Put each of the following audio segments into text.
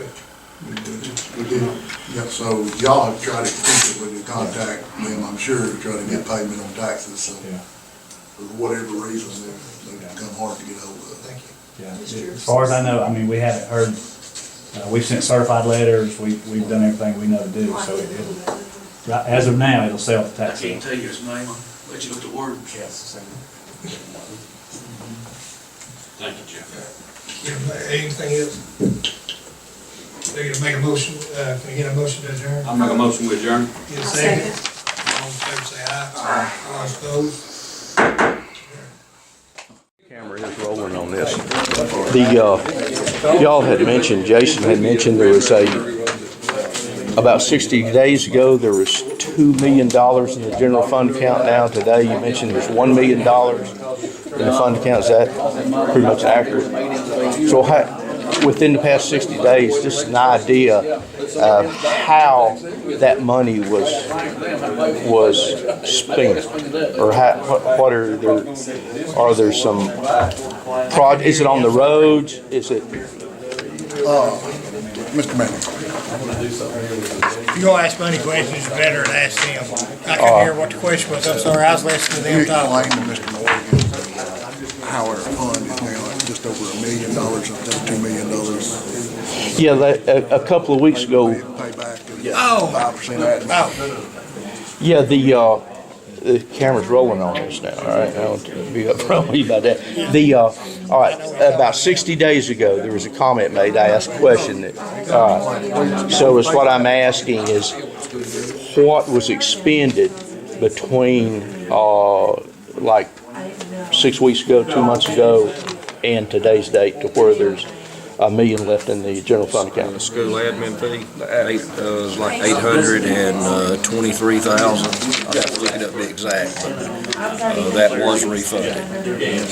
We did, we did. Yeah, so y'all have tried to keep it with your contact, them, I'm sure, to try to get payment on taxes, so Yeah, for whatever reason, they- they've become hard to get hold of. Thank you. yeah. Just your- As far as I know, I mean, we haven't heard, uh, we've sent certified letters, we, we've done everything we know to do, so it- it'll, right, as of now, it'll sell the I tax. can't sale. tell you his name, but you look the word. Thank you, Jeff. Yeah, anything else? They're gonna make a motion, uh, can I get a motion to adjourn? I'll make a motion to adjourn. Get a second? All in favor, say aye. Aye. All opposed? Camera is rolling on this. The, uh, y'all had mentioned, Jason had mentioned there was a, about sixty days ago, there was two million dollars in the general fund account. Now, today, you mentioned there's one million dollars in the fund account. Is that pretty much accurate? So how, within the past sixty days, just an idea of how that money was, was spent? Or how, what- what are there, are there some proj, is it on the roads? Is it? Mr. Uh, Manning, If you're gonna ask money questions, you better ask them. I couldn't hear what the question was, I'm sorry, I was listening to you them talk. explained to Mr. Morgan how our fund is now at just over a million dollars, I think two million dollars. Yeah, that, a, a couple of weeks ago, Payback Oh. and five percent admin. Oh, yeah, the, uh, the camera's rolling on us now, all right? I'll be upfront with you about that. The, uh, all right, about sixty days ago, there was a comment made, I asked a question that, all right. So it's what I'm asking is, what was expended between, uh, like six weeks ago, two months ago, and today's date to where there's a million left in the general fund account? The school admin fee, the eight, uh, was like eight hundred and uh, twenty-three thousand. I have to look it up the exact, but, uh, that was refunded.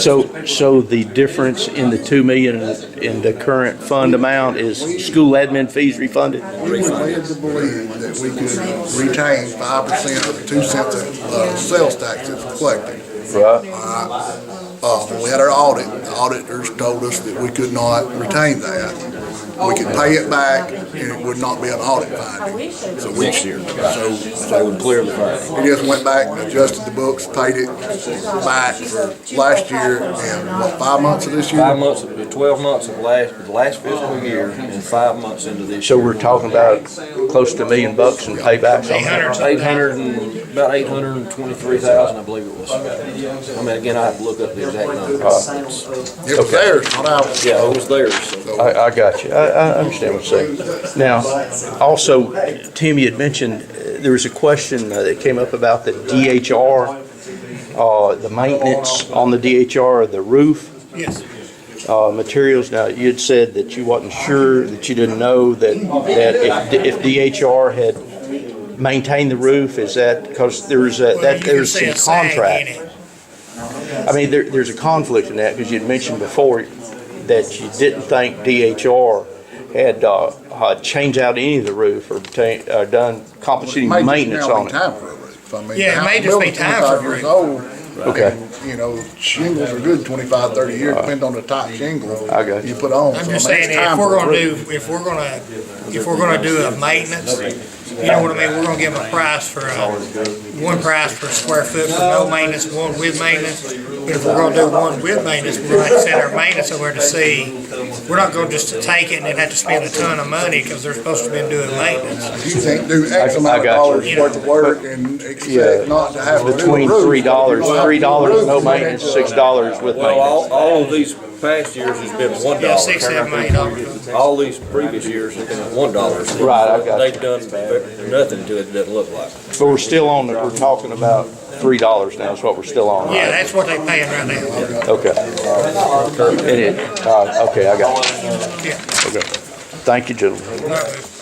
So, so the difference in the two million and- in the current fund amount is school admin fees refunded? We were led to believe that we could retain five percent of two cents of uh, sales tax that's collected. Right. Uh, when we had our audit, the auditors told us that we could not retain that. We could pay it back and it would not be an audit finding. So Next year. So They would clear the fine. we just went back and adjusted the books, paid it back for last year and what, five months of this year? Five months, of- twelve months of last, the last fiscal year and five months into this So year. we're talking about close to a million bucks in paybacks on eight that? hundred Eight hundred and, about eight hundred and twenty-three thousand, I believe it was. I mean, again, I have to look up the exact number. It's- It was theirs, not ours. Yeah, it was theirs, so. I, I got you. I, I understand what you're saying. Now, also, Tim, you had mentioned, uh, there was a question uh, that came up about the DHR, uh, the maintenance on the DHR, the roof. yes. uh, materials. Now, you had said that you wasn't sure, that you didn't know that, that if, if DHR had maintained the roof, is that, because there's a, Well, you that, can there's see some a sag in contract. it. I mean, there, there's a conflict in that, because you'd mentioned before that you didn't think DHR had, uh, uh, changed out any of the roof or ta- uh, done compensating May just maintenance now be on it. Time for a roof. I mean, Yeah, it the house- may just be building's time for a 25 years roof. old. Okay. And, You know, shingles are good 25, 30 years, depending on the type of shingle I got you. put on. I'm So, just I mean, it's saying, if time for we're a gonna roof. do, if we're gonna, if we're gonna do a maintenance, you know what I mean, we're gonna give them a price for, uh, one price per square foot for no maintenance, one with maintenance. But if we're gonna do one with maintenance, we're gonna have to send our maintenance over to see, we're not gonna just take it and then have to spend a ton of money, cause they're supposed to be doing maintenance. You can't do X I- I amount of got dollars you. worth of work and Yeah. expect not to have to do a Between roof. three dollars, You'll have three to do a dollars roof. no maintenance, six dollars with Well, maintenance. all, all of these past years has been one Yeah, dollar. six, seven million dollars. All these previous years have been one dollar. Right, I got you. They've done ve- nothing to it, doesn't look like. But we're still on, the- we're talking about three dollars now is what we're still on, Yeah, right? that's what they paying right now. Okay. And it, uh, okay, I got it. Yeah. Okay. Thank you, gentlemen. All right.